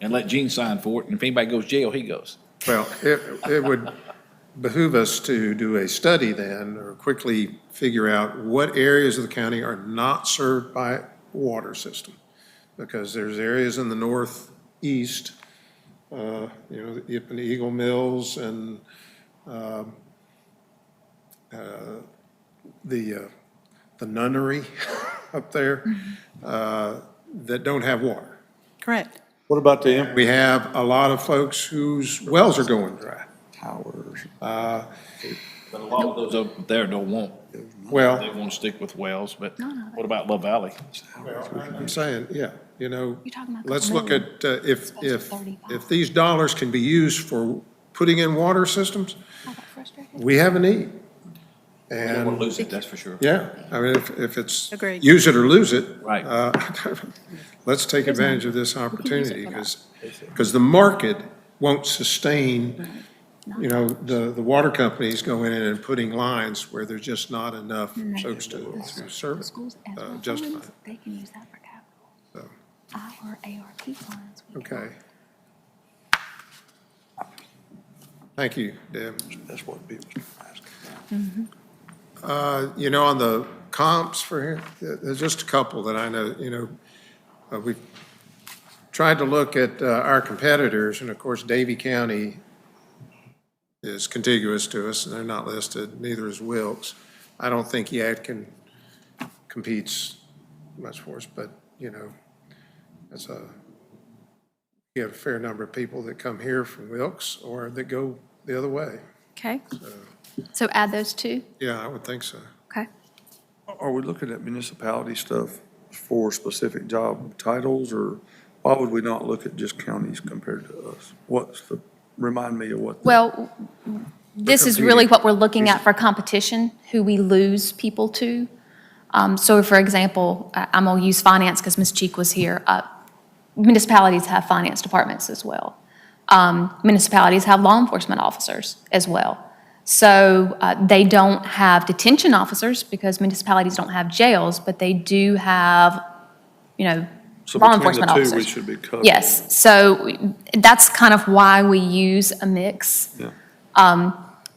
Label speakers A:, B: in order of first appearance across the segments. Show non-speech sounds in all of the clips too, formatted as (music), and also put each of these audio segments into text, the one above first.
A: and let Gene sign for it, and if anybody goes to jail, he goes.
B: Well, it, it would behoove us to do a study then, or quickly figure out what areas of the county are not served by water system. Because there's areas in the northeast, uh, you know, the Yip and Eagle Mills and, um, uh, the, uh, the nunnery (laughs) up there, uh, that don't have water.
C: Correct.
D: What about the empty
B: We have a lot of folks whose wells are going dry.
D: towers?
A: But a lot of those up there don't want, they
B: Well,
A: want to stick with wells, but what about Love Valley?
B: I'm saying, yeah, you know,
E: You're talking about a
B: let's
E: couple
B: look at, uh, if, if,
E: $35.
B: if these dollars can be used for putting in water systems,
E: I got frustrated.
B: we have a need.
A: They want to
B: And,
A: lose it, that's for sure.
B: yeah, I mean, if, if it's.
C: Agreed.
B: Use it or lose it.
A: Right.
B: uh, (laughs) Let's take advantage of this opportunity
E: for that.
B: because, because the market won't sustain, you know, the, the water companies going in and putting lines where there's just not enough folks to, to serve it,
E: Schools as
B: uh,
E: well
B: justify
E: funds,
B: it.
E: they can use that for capital. Our ARP funds. we can-
B: Okay. Thank you, Deb. Mm-hmm.
D: That's what people are asking.
B: Uh, You know, on the comps for here, th- there's just a couple that I know, you know, uh, we've tried to look at uh, our competitors, and of course, Davie County is contiguous to us, and they're not listed, neither is Wilkes. I don't think Yadkin competes much for us, but, you know, that's a, you have a fair number of people that come here from Wilkes or that go the other way.
E: Okay. So add those two,
B: Yeah, I would think so.
E: okay?
D: Are we looking at municipality stuff for specific job titles, or why would we not look at just counties compared to us? What's the, remind me of what? the-
E: Well, this is really what we're looking at for competition, who we lose people to. Um, So for example, I- I'm going to use finance because Ms. Cheek was here. Uh, Municipalities have finance departments as well. Um, Municipalities have law enforcement officers as well. So uh, they don't have detention officers because municipalities don't have jails, but they do have, you know,
D: So
E: law
D: between the
E: enforcement
D: two, we
E: officers.
D: should be covered.
E: Yes, so that's kind of why we use a mix
D: Yeah.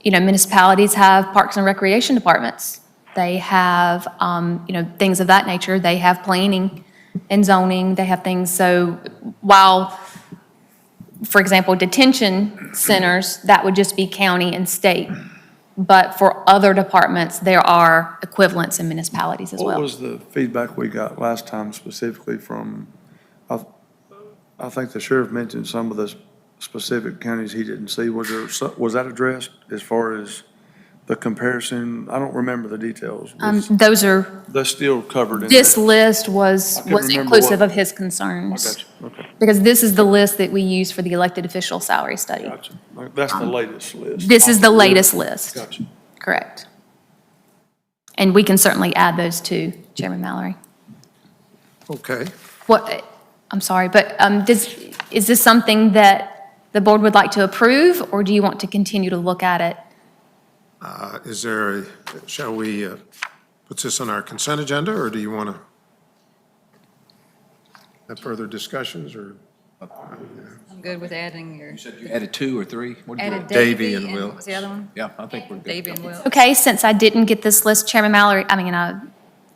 E: you know, municipalities have parks and recreation departments. They have, um, you know, things of that nature. They have planning and zoning. They have things, so while, for example, detention centers, that would just be county and state. But for other departments, there are equivalents in municipalities as
D: What
E: well.
D: was the feedback we got last time specifically from, I, I think the sheriff mentioned some of the specific counties he didn't see. Was there, so- was that addressed as far as the comparison? I don't remember the details.
E: Um, Those are,
D: That's still covered in.
E: this
D: that.
E: list was,
D: I couldn't
E: was
D: remember what-
E: inclusive of his
D: I
E: concerns.
D: got you, okay,
E: Because this is the list that we use for the elected official salary study.
D: got you. That's the latest list.
E: Um, This is the latest list.
D: Got you.
E: Correct. And we can certainly add those to Chairman Mallory.
B: Okay.
E: What, I'm sorry, but um, does, is this something that the board would like to approve, or do you want to continue to look at it?
B: Uh, Is there, a shall we uh, put this on our consent agenda, or do you want to have further discussions, or?
F: I'm good with adding your,
A: You said you added two or three? What did you
F: added
A: add?
B: Davy
F: Davy
B: and
F: and
B: Will.
F: what was the other one?
A: Yeah, I think we're good.
F: Davy and Will.
E: Okay, since I didn't get this list, Chairman Mallory, I mean, uh,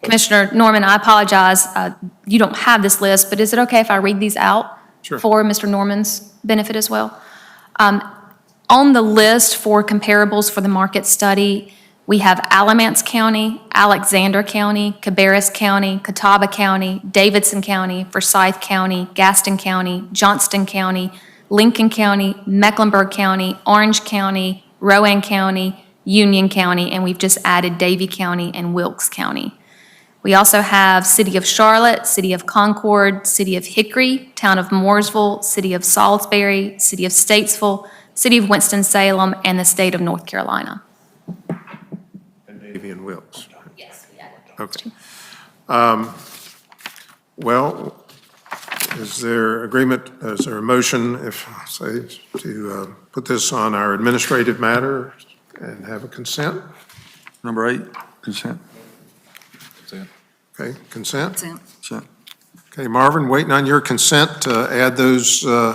E: Commissioner Norman, I apologize, uh, you don't have this list, but is it okay if I read these out?
B: Sure.
E: For Mr. Norman's benefit as well? Um, On the list for comparables for the market study, we have Alamance County, Alexander County, Cabarrus County, Catawba County, Davidson County, Forsyth County, Gaston County, Johnston County, Lincoln County, Mecklenburg County, Orange County, Rowan County, Union County, and we've just added Davie County and Wilkes County. We also have City of Charlotte, City of Concord, City of Hickory, Town of Mooresville, City of Salisbury, City of Statesville, City of Winston-Salem, and the State of North Carolina.
B: Davy and Wilkes.
E: Yes,
B: Okay. Um, Well, is there agreement, is there a motion, if, I say, to uh, put this on our administrative matter and have a consent?
D: Number eight, consent,
A: Consent.
B: Okay, consent?
F: Consent.
D: consent.
B: Okay, Marvin, waiting on your consent to add those uh,